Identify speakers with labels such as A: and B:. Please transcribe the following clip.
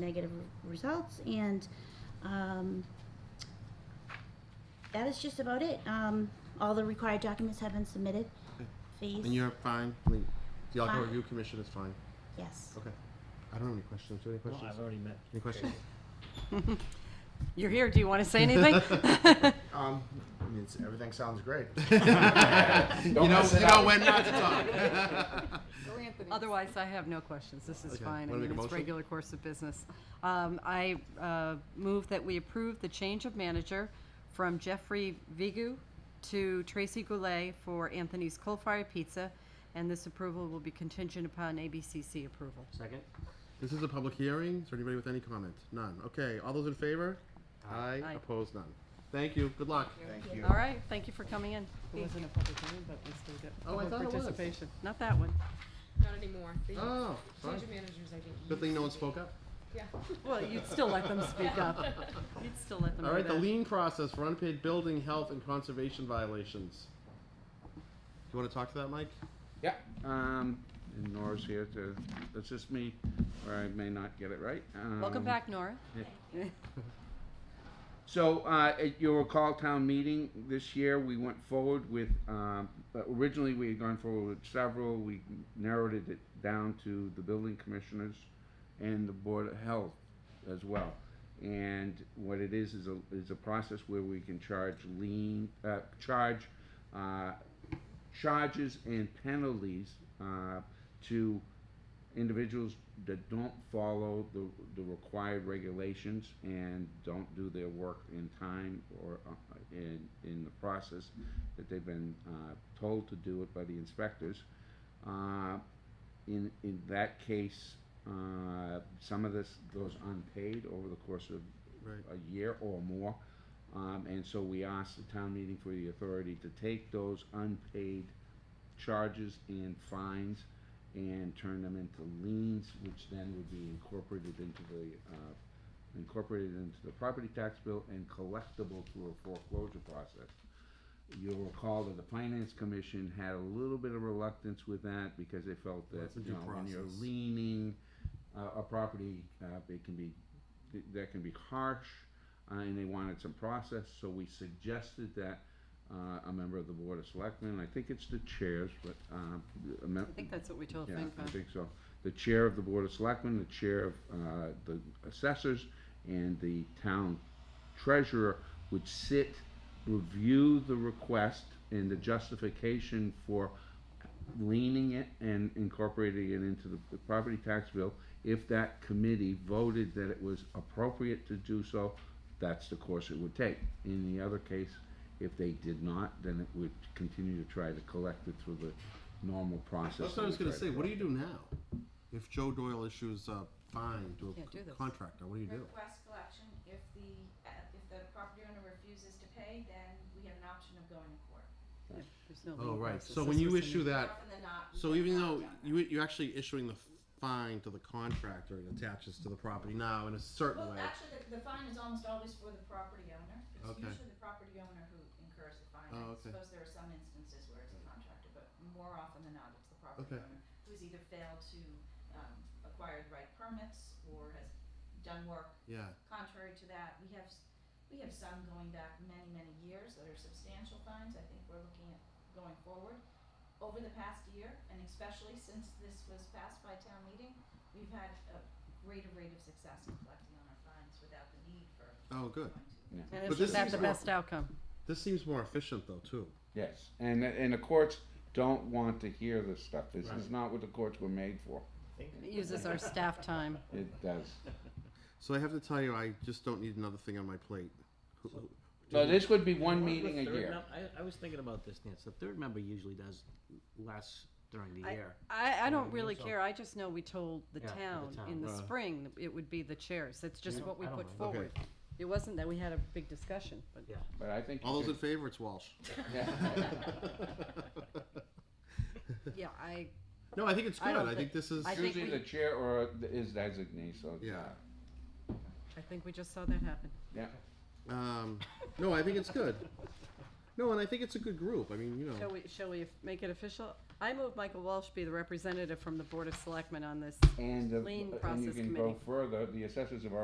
A: negative results, and um, that is just about it. Um, All the required documents have been submitted.
B: Okay.
A: Fees,
B: And you're fine, I mean, the Alcohol
A: Fine.
B: Review Commission is fine,
A: yes.
B: okay. I don't have any questions, do you have any
C: No, I've
B: questions?
C: already met.
B: Any questions?
D: You're here. Do you want to say anything?
E: Um, I mean, it's, everything sounds great.
B: You
E: Don't
B: know,
E: mess it
B: you know
E: up.
B: when not to talk.
D: Otherwise, I have no questions. This is
B: Okay.
D: fine. I
B: Wanna make
D: mean,
B: a
D: it's
B: motion?
D: regular course of business. Um, I uh, move that we approve the change of manager from Jeffrey Vigu to Tracy Goulet for Anthony's Coal Fire Pizza, and this approval will be contingent upon ABCC approval.
C: Second?
B: This is a public hearing, is there anybody with any comment? None, okay, all those in favor? Aye,
D: Aye.
B: opposed, none. Thank you, good luck.
E: Thank you.
D: All right, thank you for coming in. It wasn't a public hearing, but we still get
B: Oh, I
D: public
B: thought it was.
D: participation. Not that one.
F: Not anymore. They
B: Oh, fine.
F: change of managers, I think.
B: Good thing no one spoke up.
F: Yeah.
D: Well, you'd still let them speak up. You'd still let them
B: All
D: do
B: right, the
D: that.
B: lien process for unpaid building, health, and conservation violations. You wanna talk to that, Mike?
G: Yeah, um, and Nora's here to assist me, or I may not get it right.
D: Welcome
G: Um,
D: back, Nora.
G: So, uh, at your recall town meeting this year, we went forward with, um, but originally we had gone forward with several, we narrowed it down to the building commissioners and the board of health as well. And what it is, is a, is a process where we can charge lien, uh, charge, uh, charges and penalties, uh, to individuals that don't follow the, the required regulations and don't do their work in time or uh, in, in the process that they've been uh, told to do it by the inspectors. Uh, in, in that case, uh, some of this goes unpaid over the course of
B: Right.
G: a year or more. Um, and so we asked the town meeting for the authority to take those unpaid charges and fines and turn them into liens, which then would be incorporated into the, uh, incorporated into the property tax bill and collectible through a foreclosure process. You'll recall that the finance commission had a little bit of relucance with that because they felt that,
B: It's a due
G: you know, when you're
B: process.
G: leaning uh, a property, uh, it can be, th- that can be harsh, uh, and they wanted some process, so we suggested that uh, a member of the Board of Selectmen, I think it's the chairs, but, um, a mem-
D: I think that's what we told
G: yeah, I
D: FinCom.
G: think so. The chair of the Board of Selectmen, the chair of uh, the assessors, and the town treasurer would sit, review the request and the justification for leaning it and incorporating it into the- the property tax bill. If that committee voted that it was appropriate to do so, that's the course it would take. In the other case, if they did not, then it would continue to try to collect it through the normal process.
B: That's what I was
G: that we
B: gonna
G: try to
B: say, what do
G: do.
B: you do now? If Joe Doyle issues a fine to
D: Can't
B: a
D: do this.
B: contractor, what do you do?
H: Request collection, if the, uh, if the property owner refuses to pay, then we have an option of going to court.
D: Yeah, there's no
B: Oh,
D: lien
B: right,
D: process.
B: so
D: This
B: when you
D: was in-
B: issue that,
H: Often than not. we
B: So
H: get
B: even
H: that
B: though
H: done.
B: you, you're actually issuing the fine to the contractor, it attaches to the property now in a certain
H: Well,
B: way.
H: actually, the, the fine is almost always for the property owner. It's
B: Okay.
H: usually the property owner who incurs the fine.
B: Oh,
H: I
B: okay.
H: suppose there are some instances where it's a contractor, but more often than not, it's the property
B: Okay.
H: owner who's either failed to, um, acquire the right permits or has done work
B: Yeah,
H: contrary to that, we have, s- we have some going back many, many years that are substantial fines, I think we're looking at going forward. Over the past year, and especially since this was passed by town meeting, we've had a greater rate of success in collecting on our fines without the need for
B: oh, good.
H: going to.
D: And
B: But
D: is
B: this
D: that
B: is
D: the
B: more-
D: best outcome?
B: This seems more efficient though, too.
G: Yes, and and the courts don't want to hear this stuff. This is not what the courts were made for.
D: It uses our staff time.
G: It does.
B: So I have to tell you, I just don't need another thing on my plate. Who- who-
G: So this would be one
C: What was
G: meeting a
C: third
G: year.
C: mem- I, I was thinking about this, Nancy. The third member usually does less during the
D: I-
C: year.
D: I, I
C: I
D: don't
C: mean,
D: really
C: so-
D: care. I just know we told the
C: Yeah, the
D: town
C: town,
D: in the
B: right.
D: spring that it would be the chairs. That's just
C: Yeah.
D: what we
C: I don't
D: put
C: mind.
B: Okay.
D: forward. It wasn't that we had a big discussion, but
C: Yeah.
G: But I think.
B: All those
G: you
B: in favor, it's Walsh.
G: could- yeah.
D: yeah, I,
B: No, I think it's
D: I
B: good.
D: don't
B: I think
D: think-
B: this is,
D: I think
G: Usually
D: we-
G: the chair or is designee, so. it's
B: Yeah.
G: not-
D: I think we just saw that happen.
G: Yeah.
B: um, no, I think it's good. No, and I think it's a good group. I mean, you know,
D: Shall we, shall we make it official? I move Michael Walsh be the representative from the Board of Selectmen on this
G: And, the-
D: Lien
G: and you
D: process
G: can go
D: committee.
G: further, the assessors have already